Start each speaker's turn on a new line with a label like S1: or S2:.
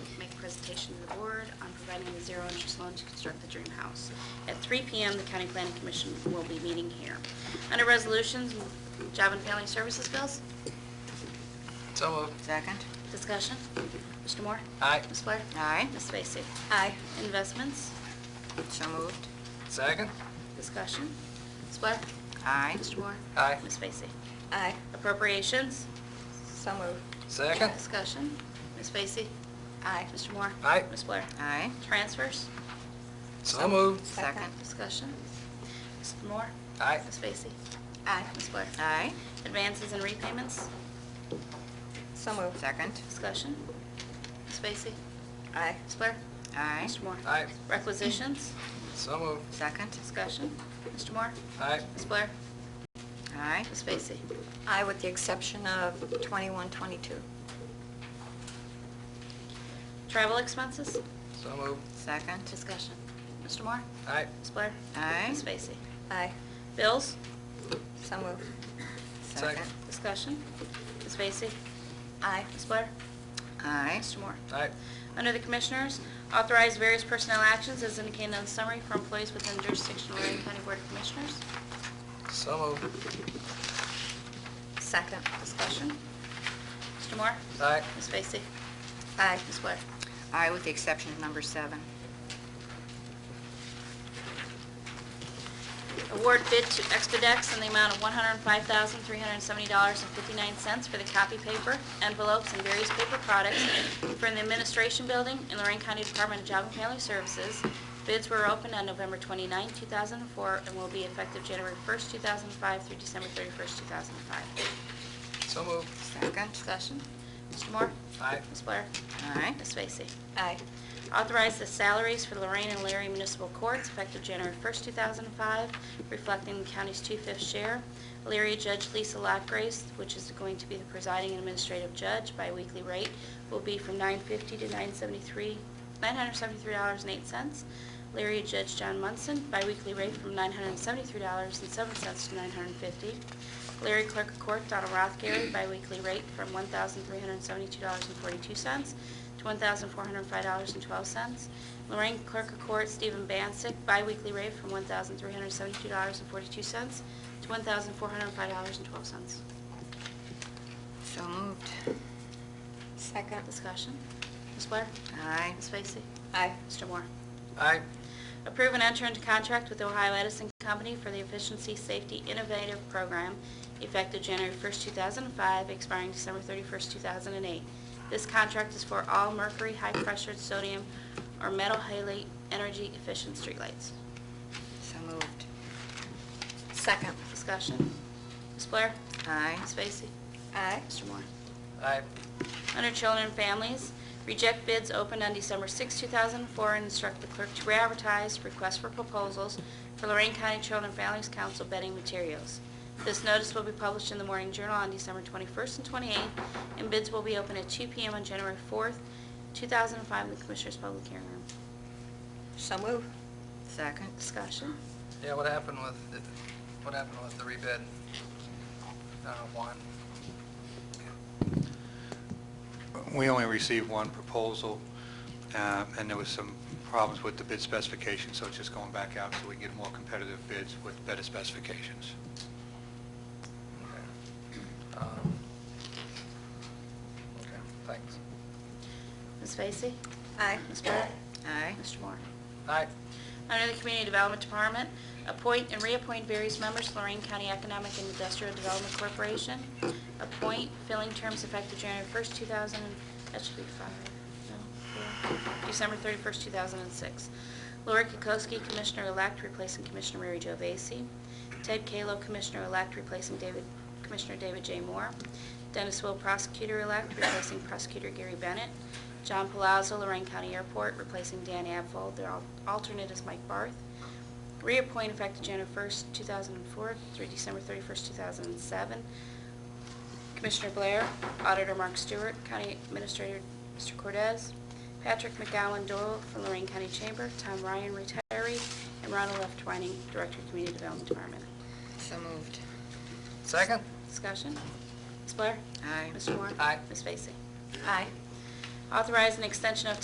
S1: presentation to the board on providing the zero-interest loan to construct the dream house. At 3 PM, the County Planning Commission will be meeting here. Under resolutions, job and family services bills,
S2: So moved.
S3: Second.
S1: discussion. Mr. Moore?
S2: Aye.
S1: Ms. Blair?
S3: Aye.
S1: Ms. Vacy?
S3: Aye.
S1: Investments,
S3: So moved.
S2: Second?
S1: discussion. Ms. Blair?
S3: Aye.
S1: Mr. Moore?
S2: Aye.
S1: Ms. Vacy?
S3: Aye.
S1: Appropriations,
S3: So moved.
S2: Second?
S1: discussion. Ms. Vacy?
S3: Aye.
S1: Mr. Moore?
S2: Aye.
S1: Ms. Blair?
S3: Aye.
S1: Transfers,
S2: So moved.
S3: Second.
S1: discussion. Mr. Moore?
S2: Aye.
S1: Ms. Vacy?
S3: Aye.
S1: Ms. Blair?
S3: Aye.
S1: Advances and repayments,
S3: So moved. Second.
S1: discussion. Ms. Vacy?
S3: Aye.
S1: Ms. Blair?
S3: Aye.
S1: Mr. Moore?
S2: Aye.
S1: Requisitions,
S2: So moved.
S3: Second.
S1: discussion. Mr. Moore?
S2: Aye.
S1: Ms. Blair?
S3: Aye.
S1: Ms. Vacy?
S4: Aye, with the exception of 21, 22.
S1: Travel expenses,
S2: So moved.
S3: Second.
S1: discussion. Mr. Moore?
S2: Aye.
S1: Ms. Blair?
S3: Aye.
S1: Ms. Vacy?
S4: Aye,
S1: Bills,
S4: so moved.
S2: Second.
S1: discussion. Ms. Vacy?
S4: Aye,
S1: Ms. Blair?
S3: Aye.
S1: Mr. Moore?
S2: Aye.
S1: Under the Commissioners, authorize various personnel actions as indicated on the summary for employees within jurisdiction of Lorraine County Board of Commissioners.
S2: So moved.
S4: second.
S1: Discussion. Mr. Moore?
S2: Aye.
S1: Ms. Vacy?
S4: Aye,
S1: Ms. Blair?
S3: Aye, with the exception of number seven.
S1: Award bid to Expedex in the amount of $105,370.59 for the copy paper, envelopes, and various paper products from the Administration Building in Lorraine County Department of Job and Family Services. Bids were opened on November 29, 2004, and will be effective January 1, 2005 through December 31, 2005.
S2: So moved.
S3: Second.
S1: Discussion. Mr. Moore?
S2: Aye.
S1: Ms. Blair?
S3: Aye.
S1: Ms. Vacy?
S4: aye,
S1: Authorize the salaries for Lorraine and Larry Municipal Courts effective January 1st, 2005, reflecting the county's two-fifth share. Leary Judge Lisa Lockgrace, which is going to be the presiding administrative judge by weekly rate, will be from $9.50 to $9.73 $973.08. Leary Judge John Munson, by weekly rate from $973.07 to $950. Larry Clerk of Court Donald Rothgary, by weekly rate from $1,372.42 to $1,405.12. Lorraine Clerk of Court Stephen Bancek, biweekly rate from $1,372.42 to $1,405.12.
S3: So moved.
S4: second.
S1: Discussion. Ms. Blair?
S3: Aye.
S1: Ms. Vacy?
S4: Aye,
S1: Mr. Moore?
S2: Aye.
S1: Approve and enter into contract with Ohio Edison Company for the Efficiency Safety Innovative Program effective January 1st, 2005, expiring December 31st, 2008. This contract is for all mercury, high-pressured sodium, or metal halide energy-efficient streetlights.
S3: So moved.
S4: second.
S1: Discussion. Ms. Blair?
S3: Aye.
S1: Ms. Vacy?
S4: Aye,
S1: Mr. Moore?
S2: Aye.
S1: Under Children and Families, reject bids opened on December 6, 2004, and instruct the clerk to re-advertise requests for proposals for Lorraine County Children and Families Council bedding materials. This notice will be published in the Morning Journal on December 21st and 28th, and bids will be open at 2 p.m. on January 4th, 2005, in the Commissioners' Public Hearing Room.
S4: so move.
S3: Second.
S1: Discussion.
S2: Yeah, what happened with, what happened with the rebid? Uh, one.
S5: We only received one proposal, uh, and there was some problems with the bid specification, so it's just going back out so we can get more competitive bids with better specifications.
S2: Okay. Um, Okay, thanks.
S1: Ms. Vacy?
S4: Aye,
S1: Ms. Blair?
S3: Aye.
S1: Mr. Moore?
S2: Aye.
S1: Under the Community Development Department, appoint and reappoint various members to Lorraine County Economic and Industrial Development Corporation. Appoint filling terms effective January 1st, 2000, that should be five, no, four, December 31st, 2006. Lori Kukowski, Commissioner-elect, replacing Commissioner Mary Jo Vacy. Ted Kalo, Commissioner-elect, replacing David, Commissioner David J. Moore. Dennis Will, Prosecutor-elect, replacing Prosecutor Gary Bennett. John Palazzo, Lorraine County Airport, replacing Dan Abfold. Their al- alternate is Mike Barth. Reappoint effective January 1st, 2004 through December 31st, 2007. Commissioner Blair, Auditor Mark Stewart, County Administrator Mr. Cordez, Patrick McGowan Doyle from Lorraine County Chamber, Tom Ryan, retiree, and Ronald F. Twining, Director of Community Development Department.
S3: So moved.
S2: Second?
S1: Discussion? Ms. Blair?
S3: Aye.
S1: Mr. Moore?
S2: Aye.
S1: Ms. Vacy?
S4: aye.
S1: Authorize an extension of